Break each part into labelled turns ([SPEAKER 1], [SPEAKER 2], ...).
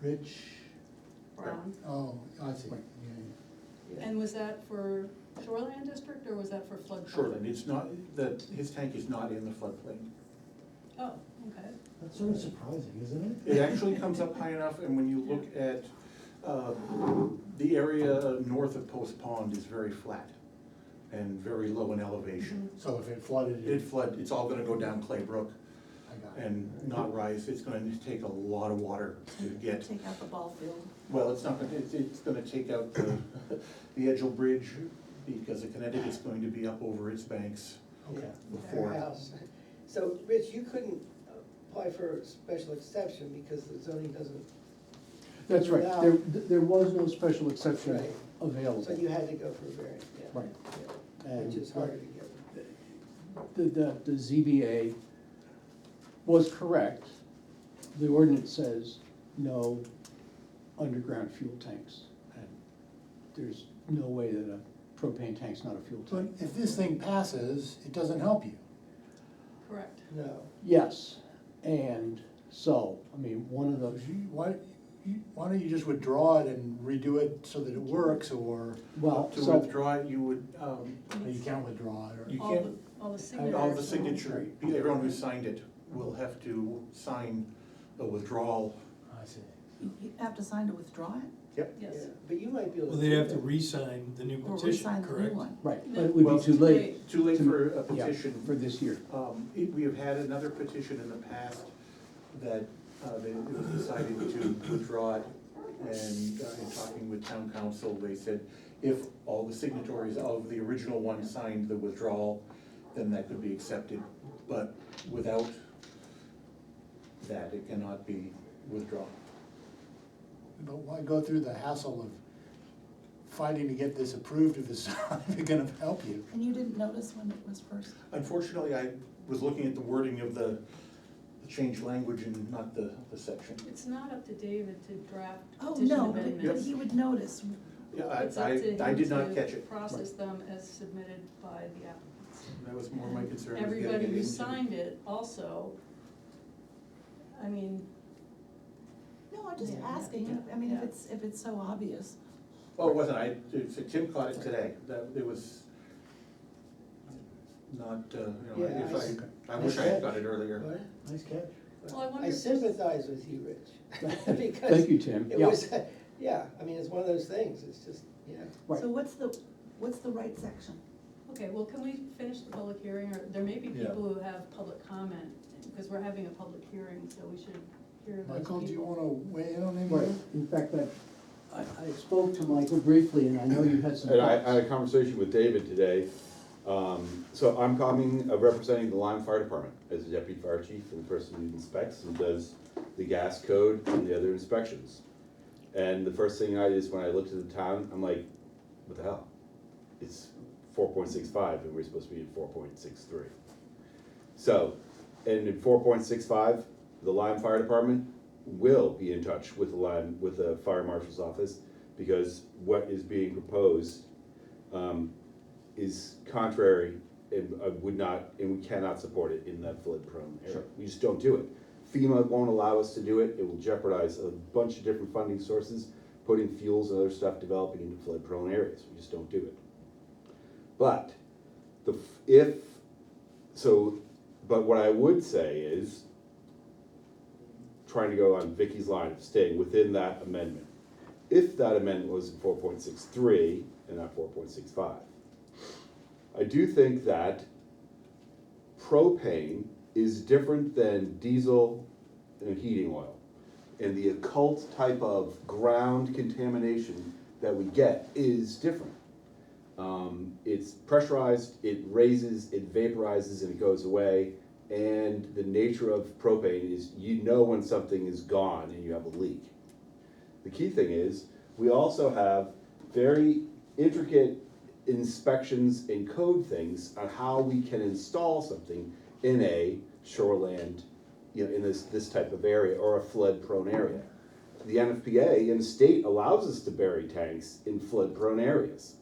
[SPEAKER 1] Rich,
[SPEAKER 2] Brown.
[SPEAKER 1] oh, I see, yeah,
[SPEAKER 2] Um, And was that for shoreline district or was that for flood?
[SPEAKER 3] Shoreland, it's not, the, his tank is not in the floodplain.
[SPEAKER 2] Oh, okay.
[SPEAKER 4] That's sort of surprising, isn't it?
[SPEAKER 3] It actually comes up high enough, and when you look at, uh, the area north of Post Pond is very flat and very low in elevation.
[SPEAKER 1] so if it flooded,
[SPEAKER 3] It
[SPEAKER 1] it,
[SPEAKER 3] flood, it's all gonna go down Clay Brook
[SPEAKER 1] I got it.
[SPEAKER 3] and not rise, it's gonna take a lot of water to get,
[SPEAKER 2] Mm-hmm.
[SPEAKER 5] Take out the ball field.
[SPEAKER 3] well, it's not gonna, it's, it's gonna take out the, the Edgel Bridge, because the Connecticut's going to be up over its banks
[SPEAKER 1] Okay,
[SPEAKER 3] before.
[SPEAKER 6] House. So, Rich, you couldn't apply for a special exception because the zoning doesn't,
[SPEAKER 4] That's right,
[SPEAKER 6] Yeah.
[SPEAKER 4] there, there was no special exception
[SPEAKER 6] Right.
[SPEAKER 4] available.
[SPEAKER 6] so you had to go for a variance, yeah.
[SPEAKER 4] Right.
[SPEAKER 6] Yeah, Which
[SPEAKER 4] And-
[SPEAKER 6] is harder to get.
[SPEAKER 4] The, the, the ZBA was correct. The ordinance says no underground fuel tanks. And there's no way that a propane tank's not a fuel
[SPEAKER 1] but
[SPEAKER 4] tank.
[SPEAKER 1] if this thing passes, it doesn't help you.
[SPEAKER 2] Correct.
[SPEAKER 6] No,
[SPEAKER 4] Yes, and so, I mean, one of
[SPEAKER 1] So
[SPEAKER 4] those,
[SPEAKER 1] you- Why, you- why don't you just withdraw it and redo it so that it works, or
[SPEAKER 4] well,
[SPEAKER 3] To
[SPEAKER 4] so.
[SPEAKER 3] withdraw it, you would, um,
[SPEAKER 1] or you can't withdraw it,
[SPEAKER 3] You
[SPEAKER 1] or?
[SPEAKER 2] All the,
[SPEAKER 3] can't-
[SPEAKER 2] all the
[SPEAKER 3] And
[SPEAKER 2] signatures.
[SPEAKER 3] All the signature, everyone who signed it will have to sign a withdrawal.
[SPEAKER 1] I see.
[SPEAKER 5] You you have to sign to withdraw it
[SPEAKER 3] Yep.
[SPEAKER 6] yeah,
[SPEAKER 2] Yes.
[SPEAKER 6] but you might be able to.
[SPEAKER 7] Well, they'd have to
[SPEAKER 6] do that.
[SPEAKER 7] re-sign the new
[SPEAKER 5] or
[SPEAKER 7] petition,
[SPEAKER 5] re-sign the new
[SPEAKER 7] correct?
[SPEAKER 5] one.
[SPEAKER 4] Right, but it would
[SPEAKER 3] Well,
[SPEAKER 4] be too
[SPEAKER 2] too
[SPEAKER 4] late.
[SPEAKER 3] Too late
[SPEAKER 4] to-
[SPEAKER 3] for a
[SPEAKER 4] yeah, For
[SPEAKER 3] petition.
[SPEAKER 4] this year.
[SPEAKER 3] Um, it- We have had another petition in the past that uh, they- it was decided to withdraw it. And uh, in talking with town council, they said if all the signatories of the original one signed the withdrawal, then that could be accepted. But without that, it cannot be withdrawn.
[SPEAKER 1] But why go through the hassle of fighting to get this approved if it's not even gonna help you?
[SPEAKER 5] And you didn't notice when it was first?
[SPEAKER 3] Unfortunately, I was looking at the wording of the the changed language and not the, the section.
[SPEAKER 2] It's not up to David to draft
[SPEAKER 5] Oh,
[SPEAKER 2] petition
[SPEAKER 5] no, but- but
[SPEAKER 2] amendments.
[SPEAKER 5] he would notice.
[SPEAKER 3] Yeah,
[SPEAKER 2] It's up to
[SPEAKER 3] I, I, I
[SPEAKER 2] him
[SPEAKER 3] did not
[SPEAKER 2] to
[SPEAKER 3] catch it.
[SPEAKER 2] Process them as submitted by the applicants.
[SPEAKER 3] That was more my concern. was getting
[SPEAKER 2] Everybody
[SPEAKER 3] it
[SPEAKER 2] who
[SPEAKER 3] into-
[SPEAKER 2] signed it also, I mean,
[SPEAKER 5] No, I'm just
[SPEAKER 2] Yeah, yeah,
[SPEAKER 5] asking,
[SPEAKER 2] yeah,
[SPEAKER 5] I mean, if
[SPEAKER 2] yeah.
[SPEAKER 5] it's, if it's so obvious.
[SPEAKER 3] Oh, it wasn't, I, so Tim caught it today, that, it was not, uh, you know,
[SPEAKER 6] Yeah, I
[SPEAKER 3] if
[SPEAKER 6] s-
[SPEAKER 3] I, I wish I had
[SPEAKER 6] I- uh,
[SPEAKER 3] got it earlier.
[SPEAKER 6] What?
[SPEAKER 4] Nice catch.
[SPEAKER 2] Well, I wonder
[SPEAKER 6] I
[SPEAKER 2] if-
[SPEAKER 6] sympathize with you, Rich. because
[SPEAKER 4] Thank you, Tim.
[SPEAKER 6] It
[SPEAKER 4] Yeah.
[SPEAKER 6] was, yeah, I mean, it's one of those things, it's just, yeah.
[SPEAKER 4] Right.
[SPEAKER 5] So what's the, what's the right section?
[SPEAKER 2] Okay, well, can we finish the public hearing, or there may be
[SPEAKER 1] Yeah.
[SPEAKER 2] people who have public comment, because we're having a public hearing, so we should hear those people.
[SPEAKER 1] Michael, do you wanna weigh in on any of
[SPEAKER 4] Right,
[SPEAKER 1] this?
[SPEAKER 4] in fact, I, I I spoke to Michael briefly, and I know you had some
[SPEAKER 8] And I, I had
[SPEAKER 4] thoughts.
[SPEAKER 8] a conversation with David today. Um, so I'm coming, uh, representing the Lyme Fire Department as the deputy fire chief and the person who inspects and does the gas code and the other inspections. And the first thing I did is when I looked at the town, I'm like, what the hell? It's four point six five and we're supposed to be at four point six three. So, and in four point six five, the Lyme Fire Department will be in touch with the Lyme, with the Fire Marshal's office, because what is being proposed, um, is contrary, and uh, would not, and we cannot support it in that flood prone area.
[SPEAKER 4] Sure.
[SPEAKER 8] We just don't do it. FEMA won't allow us to do it, it will jeopardize a bunch of different funding sources, putting fuels and other stuff developing into flood prone areas, we just don't do it. But, the, f- if, so, but what I would say is, trying to go on Vicky's line of staying within that amendment. If that amendment was in four point six three and not four point six five. I do think that propane is different than diesel and heating oil. And the occult type of ground contamination that we get is different. Um, it's pressurized, it raises, it vaporizes, and it goes away. And the nature of propane is you know when something is gone and you have a leak. The key thing is, we also have very intricate inspections and code things on how we can install something in a shoreland, you know, in this, this type of area or a flood prone area. The NFPA and the state allows us to bury tanks in flood prone areas.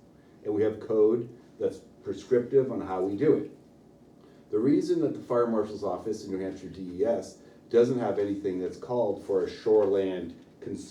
[SPEAKER 8] And we have code that's prescriptive on how we do it. The reason that the fire marshal's E office in New Hampshire DES doesn't have anything that's called for a shoreland cons-